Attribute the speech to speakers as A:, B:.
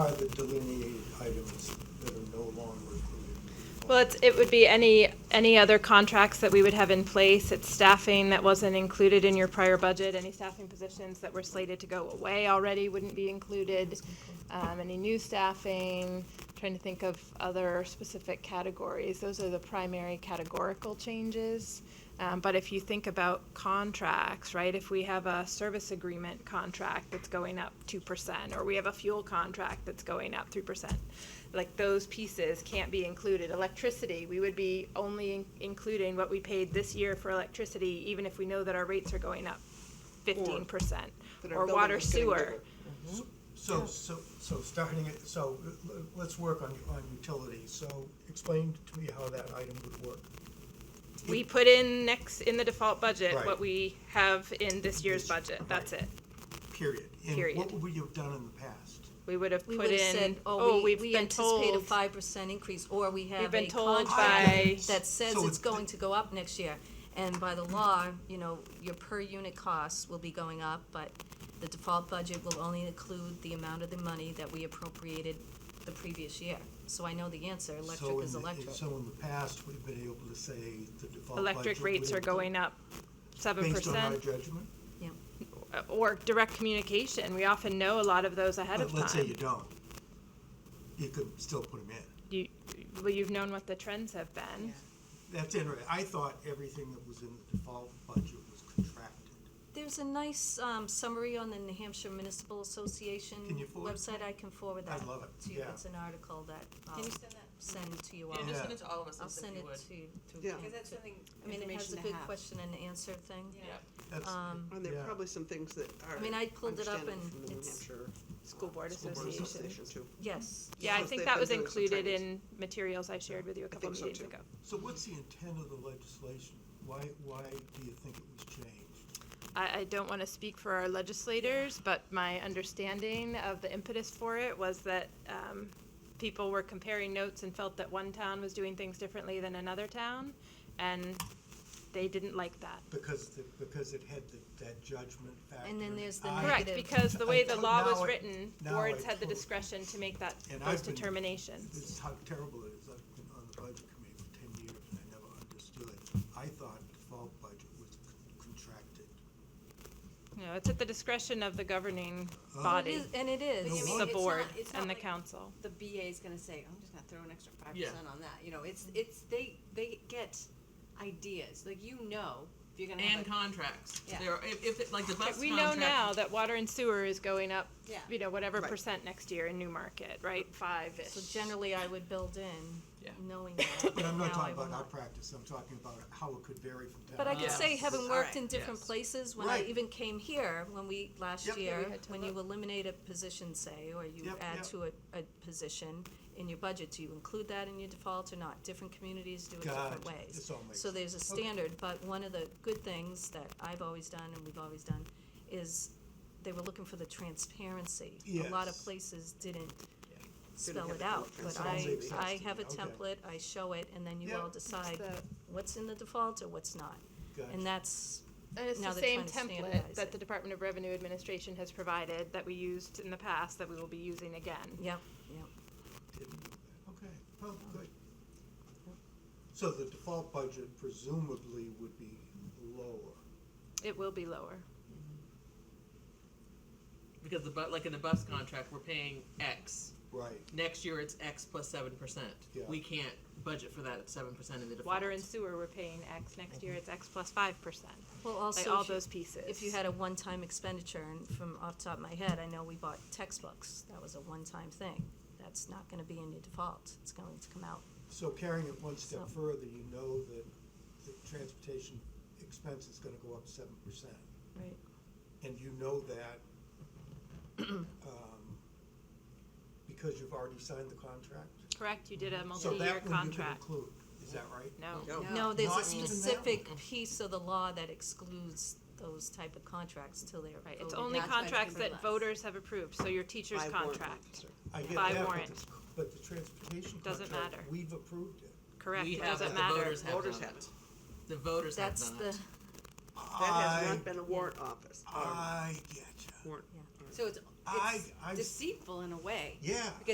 A: are the delineated items that are no longer included?
B: Well, it's, it would be any, any other contracts that we would have in place. It's staffing that wasn't included in your prior budget. Any staffing positions that were slated to go away already wouldn't be included. Um, any new staffing, trying to think of other specific categories. Those are the primary categorical changes. Um, but if you think about contracts, right, if we have a service agreement contract that's going up 2%, or we have a fuel contract that's going up 3%, like those pieces can't be included. Electricity, we would be only in- including what we paid this year for electricity, even if we know that our rates are going up 15%.
C: That our
B: Or
C: building
B: water
C: is getting
B: sewer.
C: bigger.
A: So, so, so starting it, so l- l- let's work on, on utilities. So explain to me how that item would work.
B: We put in next, in the default budget,
A: Right.
B: what we have in this year's
A: This-
B: budget. That's
A: right.
B: it.
A: Period. And what
B: Period.
A: would we have done in the past?
B: We would have
D: We
B: put
D: would have
B: in,
D: said,
B: oh,
D: oh, we,
B: we've
D: we
B: been
D: anticipate a
B: told.
D: five percent increase, or we have
B: been
D: a
B: told by-
D: contract that says
A: So it's-
D: it's going to go up next year. And by the law, you know, your per unit costs will be going up, but the default budget will only include the amount of the money that we appropriated the previous year. So I know the answer,
A: So
D: electric
A: in
D: is
A: the-
D: electric.
A: So in the past, we've been able to say the default budget.
B: Electric rates
A: would
B: are
A: include-
B: going up seven
A: Based on our
B: percent,
A: judgment?
D: Yeah.
B: or direct communication. We often know a lot of those ahead of
A: But Uh, let's say you
B: time.
A: don't. You could still put them in.
B: You, well, you've known what the trends have been.
A: That's interesting. I thought everything that was in the default budget was contracted.
D: There's a nice um, summary on the New Hampshire Municipal Association
A: Can you forward?
D: website. I can forward
A: I
D: that
A: love it,
D: to you.
A: yeah.
D: It's an article that I'll
E: Can you send that?
D: send to you all.
E: Can
A: Yeah.
E: you just send it to all of us,
D: I'll
E: if
D: send
E: you
D: it
E: would?
D: to, to
C: Yeah.
D: Dan.
E: Because that's something,
D: I mean, it has a
E: information to
D: good
E: have.
D: question and answer thing.
E: Yeah.
A: That's,
D: Um,
C: And there
A: Yeah.
C: are probably some things that are.
D: I mean, I pulled it up
C: understandable
D: and
C: from the New
D: it's-
C: Hampshire
B: School Board
C: School Board
B: Association.
C: Association too.
D: Yes.
B: Yeah, I
C: Because
B: think
C: they've
B: that
C: been
B: was
C: doing some
B: included in
C: trainings.
B: materials I shared with you a couple
C: think so,
B: meetings
C: too.
B: ago.
A: so what's the intent of the legislation? Why, why do you think it was changed?
B: I, I don't want to speak for our legislators, but my understanding of the impetus for it was that um, people were comparing notes and felt that one town was doing things differently than another town, and they didn't like that.
A: Because, the- because it had the- that judgment factor.
D: then
A: and
D: there's the
A: I-
D: negative.
B: Correct, because the way the
A: I-
B: law
A: now
B: was
A: I-
B: written,
A: now
B: boards
A: I
B: had the
A: totally-
B: discretion to make that,
A: And
B: those
A: I've been-
B: determinations.
A: This is how terrible it is. I've been on the budget committee for ten years and I never understood it. I thought the default budget was con- contracted.
B: You know, it's at the discretion of the governing
A: Oh.
D: It
B: body,
D: is- And it
E: But
D: is.
E: you mean-
B: the
E: it's not-
B: board
E: it's not
B: and the
E: like-
B: council.
E: The BA is gonna say, I'm just gonna throw an extra five
F: Yeah.
E: percent on that, you know, it's, it's, they, they get ideas, like, you know, if you're gonna have
F: and
E: a.
F: contracts.
E: Yeah.
F: There are, if, if like the bus
B: We know
F: contract,
B: now that water and sewer is going up,
E: Yeah.
B: you know, whatever
C: Right.
B: percent next year in Newmarket, right, five-ish.
D: So generally, I would build in,
F: Yeah.
D: knowing that.
A: But I'm
D: Now I
A: not talking
D: will
A: about our
D: not.
A: practice. I'm talking about how it could vary from town.
D: But I can
A: to
F: Yes.
D: say,
A: town.
D: having
C: All
D: worked
C: right.
D: in different
F: Yes.
D: places, when I
A: Right.
D: even came here, when we,
A: Yep.
D: last
A: Yeah,
B: we
D: year,
B: had to
D: when you
B: look.
D: eliminate a position, say, or you
A: Yep,
D: add
A: yep.
D: to a, a position in your budget, do you include that in your default or not? Different communities do it different
A: Gotcha.
D: ways.
A: This all makes
D: So there's a
A: Okay.
D: standard, but one of the good things that I've always done and we've always done is they were looking for the transparency. A lot of
A: Yes.
D: places didn't
F: Yeah.
D: spell
C: have
D: it
C: the
D: out,
C: full
D: but I,
A: transparency.
D: I have a
A: Okay.
D: template, I show it, and then you
A: Yeah.
D: all decide
B: the-
D: what's in the default or what's not.
A: Gotcha.
D: And that's,
B: And it's
D: Now
B: the
D: they're
B: same
D: trying to
B: template
D: standardize
B: that
D: it.
B: the Department of Revenue Administration has provided that we used in the past that we will be using again.
D: yep, yep.
A: Didn't know that. Okay, well, good. So the default budget presumably would be lower.
B: It will be lower.
F: because the bu- like in the bus contract, we're paying X.
A: Right,
F: Next year, it's X plus seven percent.
A: Yeah.
F: We can't budget for that at seven percent in the default.
B: Water and sewer, we're paying X,
A: Mm-hmm.
B: next year it's X plus five percent,
D: Well,
B: like
D: also,
B: all
D: if you-
B: those pieces.
D: if you had a one-time expenditure, and from off the top of my head, I know we bought textbooks, that was a one-time thing. That's not gonna be in your default, it's going to come out.
A: so carrying it one step
D: So-
A: further, you know that the transportation expense is gonna go up seven percent.
D: Right.
A: And you know that, um, because you've already signed the contract?
B: Correct, you did a
A: So
B: multi-year
A: that one you can
B: contract.
A: include, is that right?
B: No,
E: No.
D: No, there's a
A: Not even that
D: specific piece of the law that excludes those type of contracts till they're
B: right, it's
D: voted
B: only
D: on.
E: That's why it's
B: contracts
E: gonna be
B: that
E: less.
B: voters have approved, so your teacher's
C: By warrant
B: contract.
C: officer.
A: I get
B: By
A: that, but
B: warrant.
A: the- But the transportation
B: Doesn't
A: contract,
B: matter.
A: we've approved it.
B: Correct,
F: We
B: it
F: have
B: doesn't
F: it, the
B: matter.
F: voters have
C: Voters
F: done
C: have
F: it.
C: it.
F: The voters
D: That's
F: have done
D: the,
F: it.
C: That has
A: I-
C: not been a warrant office, or
A: I getcha.
C: warrant.
E: So it's
A: I,
E: it's
A: I,
E: deceitful in a way.
A: yeah.